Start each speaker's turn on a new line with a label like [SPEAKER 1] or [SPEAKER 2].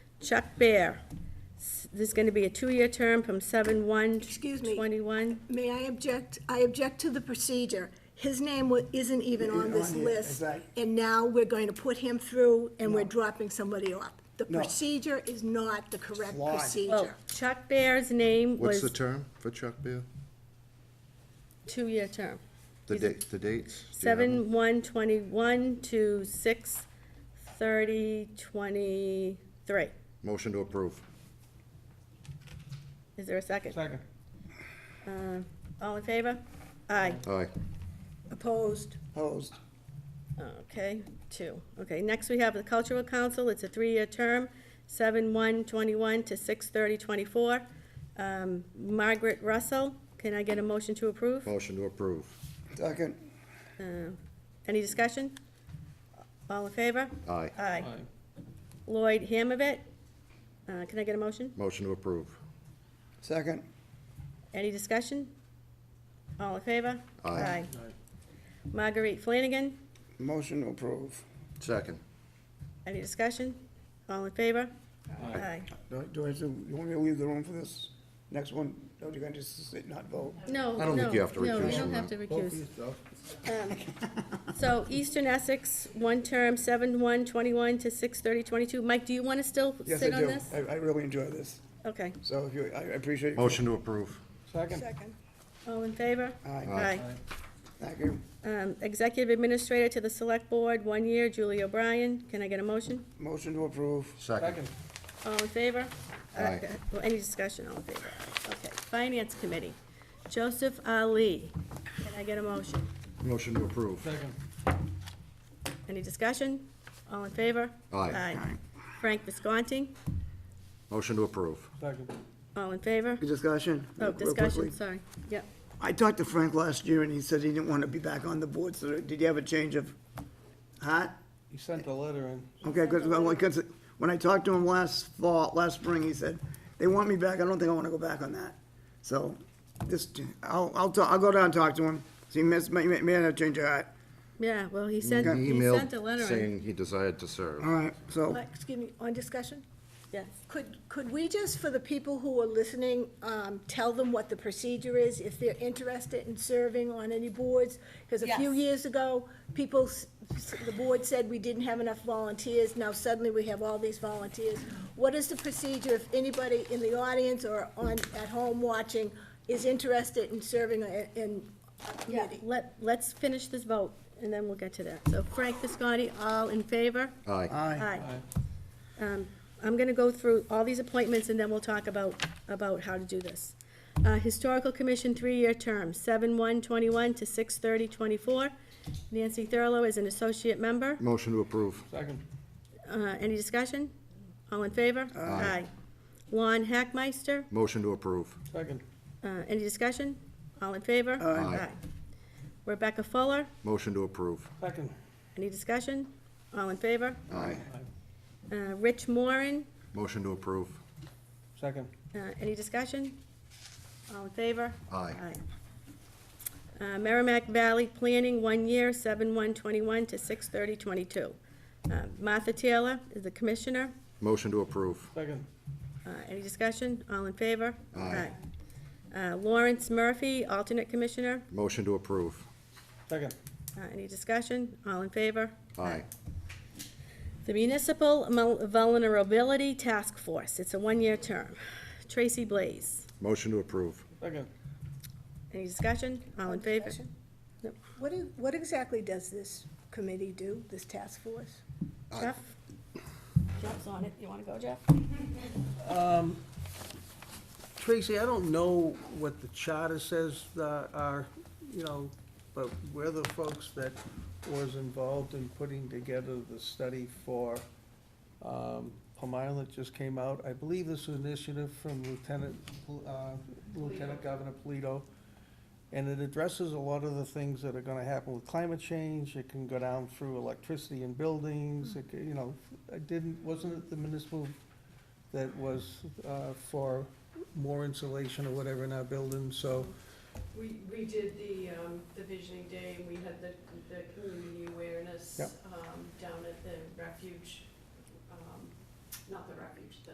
[SPEAKER 1] Chuck Bear. S- This is going to be a two-year term from 7/1.
[SPEAKER 2] Excuse me.
[SPEAKER 1] 21.
[SPEAKER 2] May I object, I object to the procedure. His name wa- isn't even on this
[SPEAKER 3] On here,
[SPEAKER 2] list,
[SPEAKER 3] exactly.
[SPEAKER 2] and now we're going to put him through, and we're dropping somebody off. The
[SPEAKER 3] No.
[SPEAKER 2] procedure is not the correct
[SPEAKER 3] Flawed.
[SPEAKER 1] Well,
[SPEAKER 2] procedure.
[SPEAKER 1] Chuck Bear's name
[SPEAKER 4] What's the
[SPEAKER 1] was
[SPEAKER 4] term for Chuck Beer?
[SPEAKER 1] two-year term.
[SPEAKER 4] The
[SPEAKER 1] He's a-
[SPEAKER 4] date, the dates? Do you have them?
[SPEAKER 1] Seven, one, twenty-one to six, thirty, twenty-three.
[SPEAKER 4] Motion to approve.
[SPEAKER 1] Is there a second? Uh,
[SPEAKER 5] Second.
[SPEAKER 1] All in favor? Aye.
[SPEAKER 4] Aye.
[SPEAKER 2] Opposed?
[SPEAKER 3] Opposed.
[SPEAKER 1] Okay, two. Okay, next we have the Cultural Council. It's a three-year term, seven, one, twenty-one to six, thirty, twenty-four. Um, Margaret Russell, can I get a motion to approve?
[SPEAKER 4] Motion to approve.
[SPEAKER 3] Second.
[SPEAKER 1] Any discussion? All in favor?
[SPEAKER 4] Aye.
[SPEAKER 1] Aye.
[SPEAKER 5] Aye.
[SPEAKER 1] Lloyd Hamovit, uh, can I get a motion?
[SPEAKER 4] Motion to approve.
[SPEAKER 3] Second.
[SPEAKER 1] Any discussion? All in favor?
[SPEAKER 4] Aye.
[SPEAKER 1] Marguerite Flanagan,
[SPEAKER 3] Motion to approve.
[SPEAKER 4] Second.
[SPEAKER 1] any discussion? All in favor? Aye.
[SPEAKER 3] Do do I, have to- you want me to leave the room for this next one? Or you gonna just sit, not vote?
[SPEAKER 1] No,
[SPEAKER 4] I don't think
[SPEAKER 1] no,
[SPEAKER 4] you have to
[SPEAKER 1] No,
[SPEAKER 4] recuse
[SPEAKER 1] you don't
[SPEAKER 4] from
[SPEAKER 1] have to
[SPEAKER 4] that.
[SPEAKER 1] recuse. Um, So Eastern Essex, one term, seven one twenty-one to six thirty twenty-two. Mike, do you want to still
[SPEAKER 3] Yes, I
[SPEAKER 1] sit on
[SPEAKER 3] do.
[SPEAKER 1] this?
[SPEAKER 3] I, I really enjoy this.
[SPEAKER 1] Okay.
[SPEAKER 3] So if you, I I appreciate you.
[SPEAKER 4] Motion to approve.
[SPEAKER 5] Second.
[SPEAKER 1] All in favor?
[SPEAKER 3] Aye.
[SPEAKER 1] Aye.
[SPEAKER 3] Thank you.
[SPEAKER 1] Um, Executive Administrator to the Select Board, one year, Julie O'Brien. Can I get a motion?
[SPEAKER 3] Motion to approve.
[SPEAKER 4] Second.
[SPEAKER 5] Second.
[SPEAKER 1] All in favor? Uh,
[SPEAKER 4] Aye.
[SPEAKER 1] uh, Any discussion, all in favor? Okay, Finance Committee, Joseph Ali. Can I get a motion?
[SPEAKER 4] Motion to approve.
[SPEAKER 5] Second.
[SPEAKER 1] Any discussion? All in favor?
[SPEAKER 4] Aye.
[SPEAKER 1] Frank Visconti,
[SPEAKER 4] Motion to approve.
[SPEAKER 5] Second.
[SPEAKER 1] all in favor?
[SPEAKER 3] Discussion?
[SPEAKER 1] Oh,
[SPEAKER 3] real
[SPEAKER 1] discussion,
[SPEAKER 3] quickly.
[SPEAKER 1] sorry. Yep.
[SPEAKER 3] I talked to Frank last year and he said he didn't want to be back on the board, so did you have a change of heart?
[SPEAKER 5] He sent a letter in.
[SPEAKER 3] Okay, because, when I talked to him last fall, last spring, he said, they want me back, I don't think I want to go back on that. So, just, I'll, I'll, ta- I'll go down and talk to him, see, he may, may, may have changed your heart.
[SPEAKER 1] Yeah, well, he sent,
[SPEAKER 4] He
[SPEAKER 1] he sent a
[SPEAKER 4] emailed
[SPEAKER 1] letter in.
[SPEAKER 4] saying he desired to serve.
[SPEAKER 3] All right, so,
[SPEAKER 2] Excuse me, on discussion?
[SPEAKER 1] Yes.
[SPEAKER 2] Could, could we just, for the people who are listening, um, tell them what the procedure is, if they're interested in serving on any boards? Because a few
[SPEAKER 1] Yes.
[SPEAKER 2] years ago, people, s- s- the board said we didn't have enough volunteers, now suddenly we have all these volunteers. What is the procedure if anybody in the audience or on, at home watching is interested in serving a- in a
[SPEAKER 1] Yeah,
[SPEAKER 2] committee?
[SPEAKER 1] let, let's finish this vote, and then we'll get to that. So Frank Visconti, all in favor?
[SPEAKER 4] Aye.
[SPEAKER 3] aye,
[SPEAKER 1] Aye. Um, I'm gonna go through all these appointments, and then we'll talk about, about how to do this. Uh, Historical Commission, three-year term, seven one twenty-one to six thirty twenty-four. Nancy Thurlow is an associate member.
[SPEAKER 4] Motion to approve.
[SPEAKER 5] Second.
[SPEAKER 1] Uh, any discussion? All in favor? Aye. Lon Hackmeister,
[SPEAKER 4] Motion to approve.
[SPEAKER 5] Second.
[SPEAKER 1] uh, any discussion? All in favor?
[SPEAKER 4] Aye.
[SPEAKER 1] Rebecca Fuller,
[SPEAKER 4] Motion to approve.
[SPEAKER 5] Second.
[SPEAKER 1] any discussion? All in favor?
[SPEAKER 4] Aye.
[SPEAKER 1] Uh, Rich Moran,
[SPEAKER 4] Motion to approve.
[SPEAKER 5] Second.
[SPEAKER 1] Uh, Any discussion? All in favor?
[SPEAKER 4] Aye.
[SPEAKER 1] Aye. Uh, Merrimack Valley Planning, one year, seven one twenty-one to six thirty twenty-two. Uh, Martha Taylor is the commissioner.
[SPEAKER 4] Motion to approve.
[SPEAKER 5] Second.
[SPEAKER 1] Uh, Any discussion? All in favor?
[SPEAKER 4] Aye.
[SPEAKER 1] Aye. Uh, Lawrence Murphy, alternate commissioner.
[SPEAKER 4] Motion to approve.
[SPEAKER 5] Second.
[SPEAKER 1] Uh, Any discussion? All in favor?
[SPEAKER 4] Aye.
[SPEAKER 1] The Municipal Mul- Vulnerability Task Force, it's a one-year term. Tracy Blaze.
[SPEAKER 4] Motion to approve.
[SPEAKER 5] Second.
[SPEAKER 1] Any discussion? All in favor?
[SPEAKER 2] Discussion?
[SPEAKER 1] Nope.
[SPEAKER 2] What, is- what exactly does this committee do, this task force?
[SPEAKER 1] Jeff? Jeff's on it. You want to go, Jeff?
[SPEAKER 6] Tracy, I don't know what the charter says uh, are, you know, but we're the folks that was involved in putting together the study for um, Plum Island that just came out. I believe this was an initiative from Lieutenant, uh, Lieutenant Governor Polito. And it addresses a lot of the things that are gonna happen with climate change. It can go down through electricity in buildings, it, ca- you know, I didn't, wasn't it the municipal that was uh, for more insulation or whatever in our buildings, so,
[SPEAKER 7] We, we did the, um, the visioning day, and we had the, the community awareness,
[SPEAKER 6] Yep.
[SPEAKER 7] um, down at the refuge, um, not the refuge, the